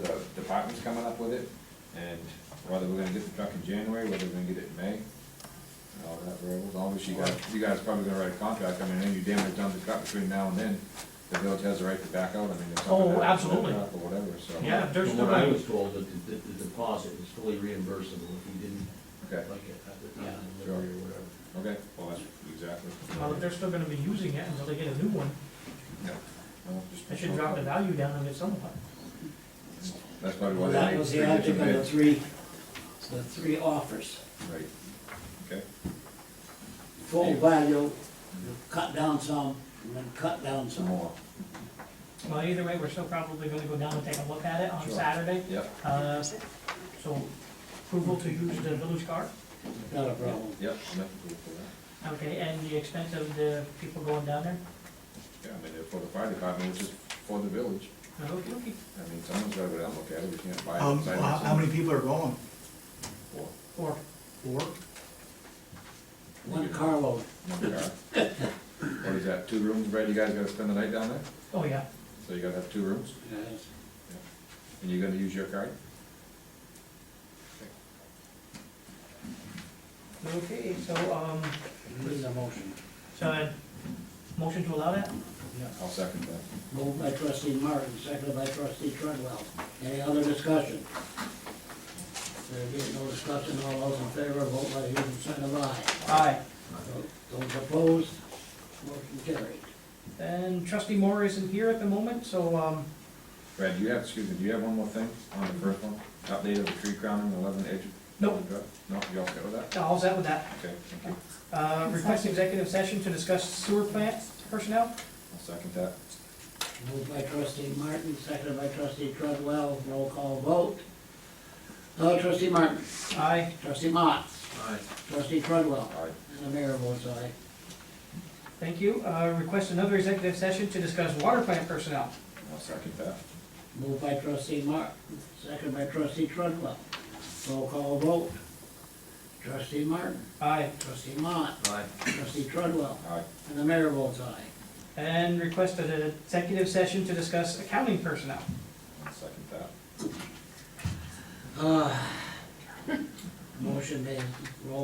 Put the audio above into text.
Tom's coming up with it, and whether we're gonna get the truck in January, whether we're gonna get it in May, and all that variables, obviously, you guys, you guys probably gonna write a contract, I mean, and you damn near done the truck between now and then, the village has the right to back out, I mean, if something Oh, happens, absolutely. Or whatever, so. Yeah, if there's From what I no, was told, that the, the deposit is fully reimbursable if you didn't Okay, like it at the time of Sure. delivery or whatever. okay, well, that's exactly. well, if they're still gonna be using it until they get a new one, Yeah. Well, just- they should drop the value down on it somewhat. That's probably why Well, they that made was three the object different of the bids, three, the three offers. right, okay, Full value, cut down some, and then cut down some some. more, Well, either way, we're still probably gonna go down and take a look at it on Sure. Saturday. yep, Uh, So approval to use the village car, Not a problem. yep, I'm happy for that, okay, and the expense of the people going down there? yeah, I mean, they're for the fire department, which is for the village. Okay, okay. I mean, someone's gotta go down and look at it, we can't buy it. Um, Side how, by how side. many people are going? Four. Or, Four? One carload. One car. What is that, two rooms, Brad, you guys gotta spend the night down there? oh yeah, So you gotta have two rooms, and you're gonna use your card? okay, so, um, Needs a motion. so, uh, motion to allow that? I'll second that. Moved by trustee Martin, seconded by trustee Treadwell. Any other discussion? There being no discussion, all those in favor, vote by your consent of aye. Aye. Those opposed, motion carried. And trustee Moore isn't here at the moment, so, um, Brad, do you have, excuse me, do you have one more thing on the first one? Update of the tree crowning, eleven edge? Nope. No, you all okay with that? all's out with that. Okay, thank you, Uh, request executive session to discuss sewer plant personnel? I'll second that. Moved by trustee Martin, seconded by trustee Treadwell, roll call vote. Uh, trustee Martin, Aye. trustee Mott, All right. trustee Treadwell, All right, and the mayor votes aye. Thank you. Uh, request another executive session to discuss water plant personnel. I'll second that. Moved by trustee Martin, seconded by trustee Treadwell, roll call vote. Trustee Martin, Aye. trustee Mott, All right. trustee Treadwell, All right, and the mayor votes aye. And request an executive session to discuss accounting personnel. I'll second that. Uh, Ah. Motion made, roll